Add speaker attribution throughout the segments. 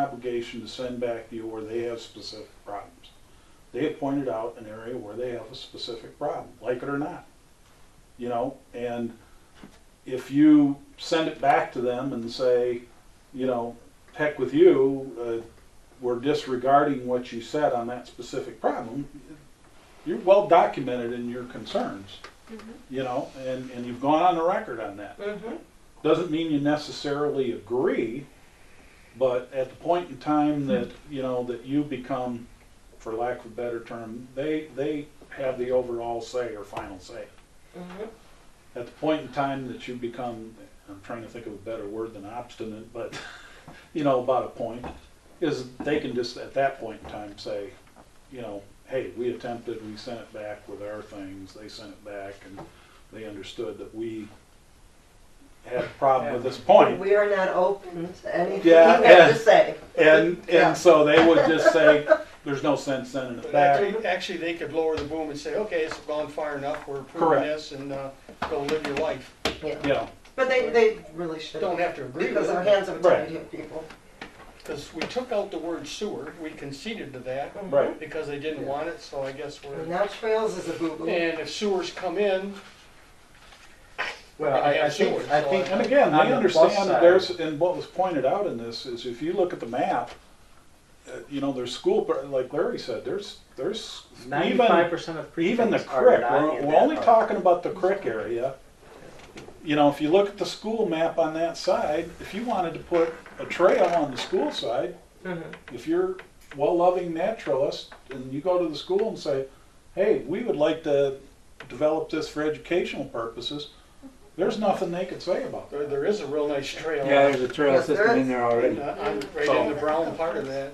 Speaker 1: obligation to send back to you where they have specific problems. They have pointed out an area where they have a specific problem, like it or not. You know, and if you send it back to them and say, you know, heck with you, uh, we're disregarding what you said on that specific problem, you're well documented in your concerns, you know, and, and you've gone on the record on that.
Speaker 2: Mm-hmm.
Speaker 1: Doesn't mean you necessarily agree, but at the point in time that, you know, that you become, for lack of a better term, they, they have the overall say or final say.
Speaker 2: Mm-hmm.
Speaker 1: At the point in time that you become, I'm trying to think of a better word than obstinate, but, you know, about a point, is they can just, at that point in time, say, you know, hey, we attempted, we sent it back with our things, they sent it back, and they understood that we had a problem with this point.
Speaker 2: We are not open to anything you
Speaker 1: Yeah,
Speaker 2: have
Speaker 1: yeah.
Speaker 2: to say.
Speaker 1: And,
Speaker 2: Yeah.
Speaker 1: and so they would just say, there's no sense sending it
Speaker 3: But
Speaker 1: back.
Speaker 3: Actually, actually, they could lower the boom and say, okay, it's gone far enough, we're approving
Speaker 1: Correct.
Speaker 3: this, and uh, go live your life.
Speaker 2: Yeah.
Speaker 1: Yeah,
Speaker 2: But they, they really should.
Speaker 3: Don't have to agree
Speaker 2: Because
Speaker 3: with
Speaker 2: our
Speaker 3: it,
Speaker 2: hands are
Speaker 1: Right.
Speaker 2: tied here, people.
Speaker 3: because we took out the word sewer, we conceded to that,
Speaker 1: right.
Speaker 3: because they didn't want it, so I guess
Speaker 2: And
Speaker 3: we're,
Speaker 2: now trails is a boo-boo.
Speaker 3: and if sewers come in,
Speaker 4: Well, I, I think, I think.
Speaker 1: And again,
Speaker 4: on
Speaker 1: they
Speaker 4: the plus
Speaker 1: understand that
Speaker 4: side-
Speaker 1: there's, and what was pointed out in this is if you look at the map, uh, you know, there's school, pro- like Larry said, there's, there's
Speaker 4: Ninety-five
Speaker 1: even,
Speaker 4: percent of precincts
Speaker 1: even the
Speaker 4: are
Speaker 1: crick.
Speaker 4: not
Speaker 1: We're,
Speaker 4: in
Speaker 1: we're
Speaker 4: that
Speaker 1: only
Speaker 4: part.
Speaker 1: talking about the crick area. You know, if you look at the school map on that side, if you wanted to put a trail on the school side,
Speaker 2: Mhm.
Speaker 1: if you're well-loving naturalist and you go to the school and say, hey, we would like to develop this for educational purposes, there's nothing they could say about
Speaker 3: there,
Speaker 1: that.
Speaker 3: there is a real nice trail.
Speaker 4: Yeah, there's a trail
Speaker 2: Yes, there
Speaker 4: system
Speaker 2: is.
Speaker 4: in there already.
Speaker 3: uh, on- Right in the brown part of that.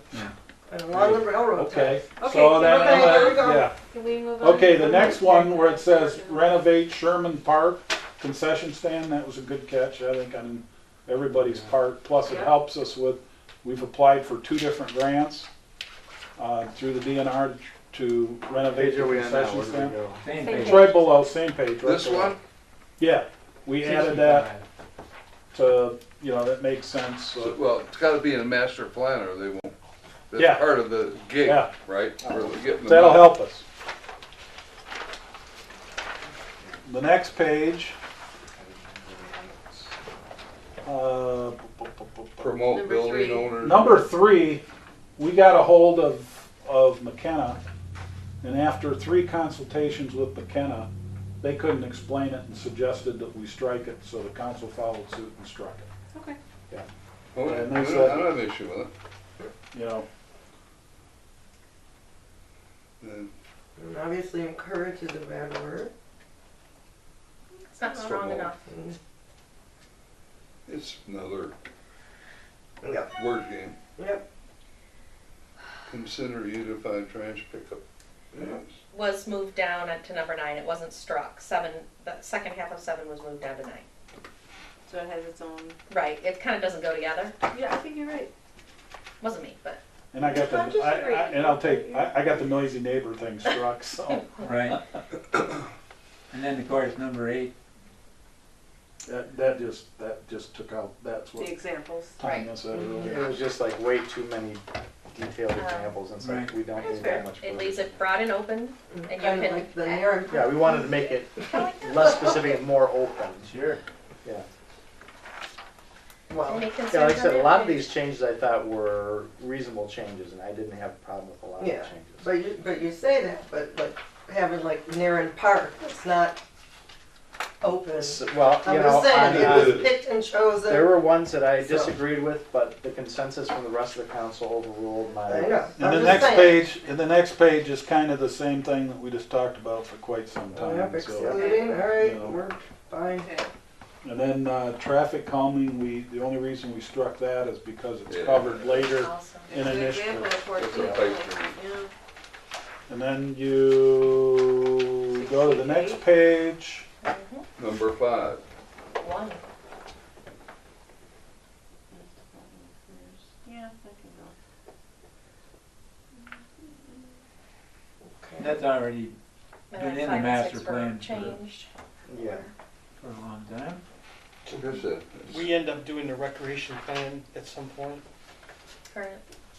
Speaker 2: And along the railroad
Speaker 1: Mm. Okay,
Speaker 2: ties.
Speaker 1: so
Speaker 5: Okay,
Speaker 1: that,
Speaker 2: okay, there we go.
Speaker 1: yeah.
Speaker 5: Can we move on?
Speaker 1: Okay, the next one where it says renovate Sherman Park concession stand, that was a good catch, I think, on everybody's part. Plus, it
Speaker 5: Yeah.
Speaker 1: helps us with, we've applied for two different grants uh, through the DNR to renovate
Speaker 4: Page
Speaker 1: the
Speaker 4: are we on now?
Speaker 1: concession
Speaker 4: Where do we
Speaker 1: stand.
Speaker 4: go?
Speaker 6: Same
Speaker 5: Same
Speaker 6: thing.
Speaker 1: It's right below, same page. right
Speaker 7: This
Speaker 1: below.
Speaker 7: one?
Speaker 1: Yeah, we added that to, you know, that makes sense.
Speaker 7: So-
Speaker 1: so-
Speaker 7: Well, it's gotta be in a master plan or they won't.
Speaker 1: Yeah.
Speaker 7: That's part of the gig,
Speaker 1: Yeah.
Speaker 7: right? Or we're getting them
Speaker 1: That'll
Speaker 7: out.
Speaker 1: help us. The next page. uh,
Speaker 7: Promote
Speaker 5: Number
Speaker 7: building
Speaker 5: three.
Speaker 7: owners.
Speaker 1: Number three, we got a hold of, of McKenna, and after three consultations with McKenna, they couldn't explain it and suggested that we strike it, so the council followed suit and struck it,
Speaker 5: Okay.
Speaker 7: Well, Oh, I
Speaker 1: and
Speaker 7: don't
Speaker 1: they
Speaker 7: I
Speaker 1: said-
Speaker 7: don't have an issue with it.
Speaker 1: you know.
Speaker 7: And
Speaker 2: And Obviously encourage is a bad word.
Speaker 5: It's not wrong enough.
Speaker 2: And-
Speaker 7: It's another
Speaker 2: Yep,
Speaker 7: word game.
Speaker 2: yep.
Speaker 7: Consider unified trash pickup. Yes.
Speaker 8: was moved down to number nine. It wasn't struck. Seven, the second half of seven was moved down to nine.
Speaker 5: So it has its own,
Speaker 8: Right. It kind of doesn't go together.
Speaker 5: yeah, I think you're right.
Speaker 8: Wasn't me, but
Speaker 1: And I got the,
Speaker 5: I'm just
Speaker 1: I- I-
Speaker 5: agreeing.
Speaker 1: and I'll take, I, I got the noisy neighbor thing struck, so.
Speaker 6: Right. And then, of course, number eight,
Speaker 1: That, that just, that just took out, that's
Speaker 5: The
Speaker 1: what
Speaker 5: examples.
Speaker 1: Tanya said earlier.
Speaker 4: It was just like way too many detailed examples and
Speaker 6: Right.
Speaker 4: stuff, we don't
Speaker 5: That's
Speaker 4: need
Speaker 5: fair.
Speaker 4: that much.
Speaker 8: it
Speaker 4: room.
Speaker 8: leaves it broad and open. And you
Speaker 2: Kind of
Speaker 8: can-
Speaker 2: like the narrative.
Speaker 4: Yeah, we wanted to make it less specific and more open.
Speaker 6: sure.
Speaker 4: Yeah.
Speaker 2: Well,
Speaker 3: Mm-hmm.
Speaker 8: Any concerns
Speaker 4: Yeah, like I
Speaker 8: on
Speaker 4: said, a
Speaker 8: that
Speaker 4: lot of
Speaker 8: page?
Speaker 4: these changes I thought were reasonable changes and I didn't have a problem with a lot of the
Speaker 2: Yeah.
Speaker 4: changes.
Speaker 2: But you, but you say that, but like having like Naren Park, it's not open.
Speaker 4: So- Well,
Speaker 2: I'm
Speaker 4: you know,
Speaker 2: just saying,
Speaker 4: on,
Speaker 2: it
Speaker 4: on,
Speaker 2: was picked and chosen.
Speaker 4: There were ones that I
Speaker 2: So-
Speaker 4: disagreed with, but the consensus from the rest of the council overruled
Speaker 2: I
Speaker 4: my.
Speaker 2: know.
Speaker 1: And the
Speaker 2: I'm just
Speaker 1: next
Speaker 2: saying.
Speaker 1: page, and the next page is kind of the same thing that we just talked about for quite some
Speaker 2: Yep,
Speaker 1: time, so.
Speaker 2: excluding, all right,
Speaker 1: No.
Speaker 2: we're fine.
Speaker 5: Okay.
Speaker 1: And then, uh, traffic calming, we, the only reason we struck that is because it's
Speaker 7: Yeah.
Speaker 1: covered later
Speaker 8: Awesome.
Speaker 1: in
Speaker 5: It's
Speaker 1: an
Speaker 5: an
Speaker 1: issue.
Speaker 5: example of for
Speaker 7: It's a
Speaker 5: people,
Speaker 7: pipe dream.
Speaker 5: yeah.
Speaker 1: And then you go to the next page,
Speaker 8: Mhm.
Speaker 7: Number five,
Speaker 8: One.
Speaker 5: Yeah, that can go.
Speaker 6: That's already
Speaker 8: And
Speaker 6: Been
Speaker 8: then
Speaker 6: in the
Speaker 8: five and
Speaker 6: master
Speaker 8: six were
Speaker 6: plan for-
Speaker 8: Changed.
Speaker 4: Yeah.
Speaker 6: for a long time.
Speaker 7: Like I said, it's-
Speaker 3: We end up doing the recreation plan at some point.
Speaker 8: Current.